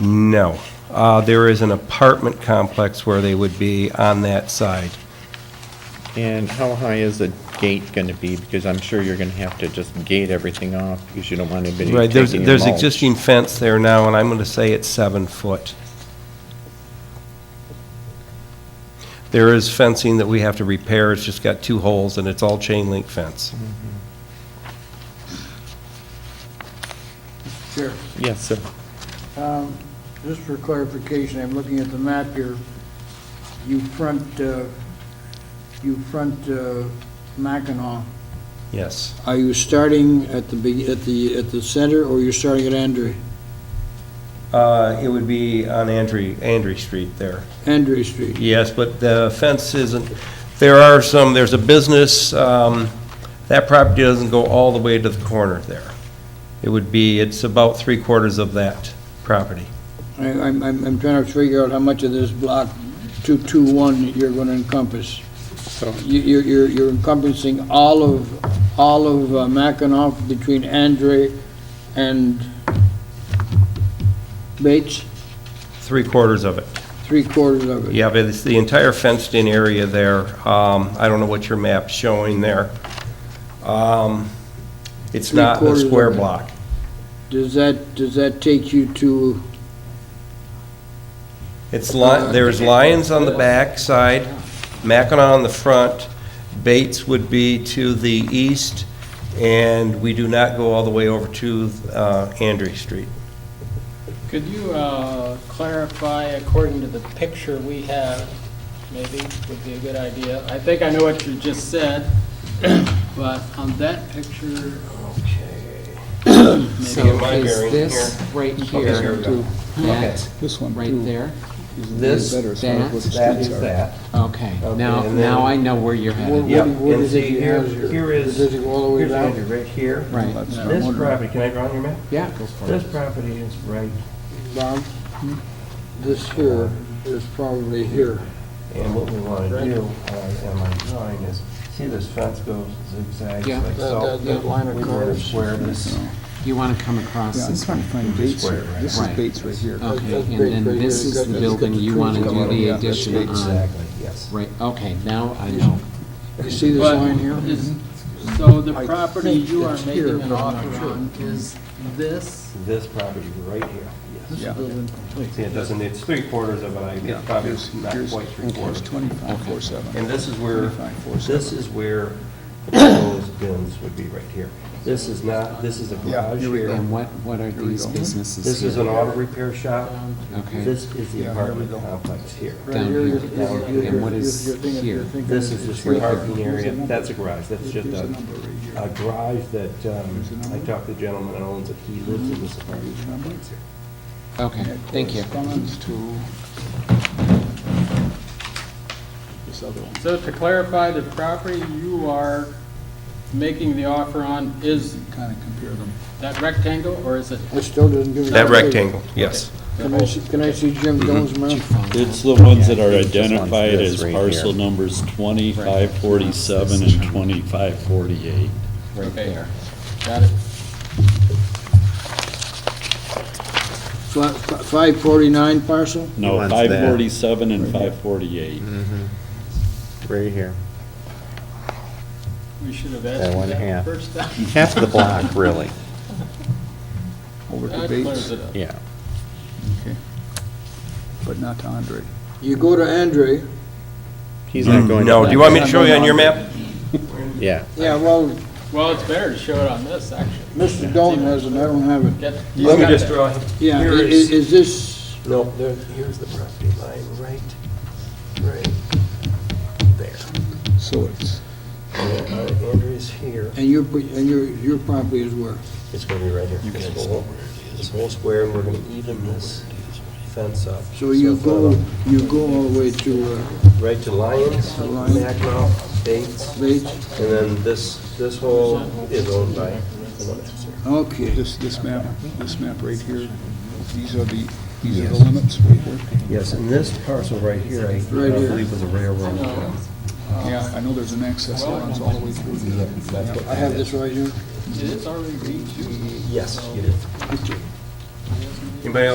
No. Uh, There is an apartment complex where they would be on that side. And how high is the gate going to be? Because I'm sure you're going to have to just gate everything off because you don't want anybody Right, there's, taking your there's mulch. existing fence there now, and I'm going to say it's seven foot. There is fencing that we have to repair, it's just got two holes, and it's all chain link fence. Mm-hmm. Sure. Yes, sir. Um, Just for clarification, I'm looking at the map here. You front, uh, you front uh, Mackinac. Yes. Are you starting at the, be- at the, at the center, or you're starting at Andre, Uh, It would be on Andre, Andre Street there. Andre Street? Yes, but the fence isn't, there are some, there's a business, um, that property doesn't go all the way to the corner there. It would be, it's about three quarters of that property. I- I'm, I'm I'm trying to figure out how much of this block 221 that you're going to encompass. So, You- You're you're you're encompassing all of, all of uh, Mackinac between Andre and Bates, Three quarters of it. three quarters of it. Yeah, but it's the entire fenced-in area there. Um, I don't know what your map's showing there. Um, It's Three not the quarters of square it. block. Does that, does that take you to, It's li, there's Lions on the back side, Mackinac on the front, Bates would be to the east, and we do not go all the way over to, uh, Andre Street. Could you uh, clarify, according to the picture we have, maybe would be a good idea? I think I know what you just said, but on that picture, So am I is bearing this right Okay, here here, we go. that, This one, right too. there? This, Better, so that, what the that streets is are. that. Okay, Okay, now, and then- now I know where you're what headed. Yep, what- what and is it see, you here- have here? here is- Does it go all the way Here's down? Andrew, right here. Right, That's what I'm This wondering. property, can I draw on your map? yeah, go for This it. property is right, Bob, this here is probably here. and what we want to do uh, on my drawing is, see this fence goes zigzags Yeah. like That- so. that- that line of We want to curves. square this, You want to come across Yeah, I'm this trying way. to find Bates square, here. right? This is Right. Bates right here. Okay, That's and big right then here. this It's got is the- the it's got building the you trees want to coming do out of the it, yeah, that's addition on. exactly, yes. Right, okay, now I know. You see this But line here? Mm-hmm. is- so the I property think you are it's here, making an but I'm not offer sure. on is this? This property right here, yes. Yeah. See, it doesn't, it's three quarters of it, I, Yeah. it's probably Here's- not here's- quite three quarters. Here's 25, 47. And this is where, 25, 47. This is where the proposed bins would be right here. This is not, this is a Yeah, garage here we here. And what, what are we these go. businesses This is here? an auto repair shop. Okay. This is the Yeah, here apartment complex here. Right down here, here. you're- you're- And you're- what is you're thinking- here? you're thinking This it's is just right the there. parking area, that's a garage, that's just Here's a, the number right here. a garage that, um, I talked to the gentleman that owns it, he lives in this apartment complex here. Okay, That thank you. corresponds to this other one. So to clarify, the property you are making the offer on is Kind of compare them. that rectangle, or is it? It still doesn't give me. that the- rectangle, Mm-hmm. yes. Can I see, can I see Jim Dolan's map? It's the ones that are Yeah, I think this one's identified this as right parcel here. numbers 2547 and 2548. Right there. Got it. Five forty-nine parcel? No, one's there. 547 and 548. Right here. We should have That asked one you that half. first time. Half the block, really, Over to That clears Bates, it up. yeah. but not to Andre. You go to Andre, He's not going. to Mm. No, that do you want me to one. show you on your map? Yeah. yeah, well, Well, it's better to show it on this, actually. Mr. Dolan has it, I don't have it. Get- Let me got just that. draw, Yeah, i- here i- is, is this, no, there, here's the property line, right, right there. So it's, Uh, Andrew's here. and your, and your, your property is where? It's gonna be right here. This whole, this whole square, and we're gonna even this fence up. So you it's go, not you go all the way to uh, up. Right to Lyons, To Lyons. Mackinac, Bates, Bates? and then this, this whole is owned by someone else. Okay, this, this map, this map right here, these are the, these are the limits right here. Yes, and this parcel right here, I I Right here. believe was a railroad. Yeah, I know there's an access that runs all the way through. Yep, that's what- I have this right here. It's already reached. Yes, you did. Anybody else?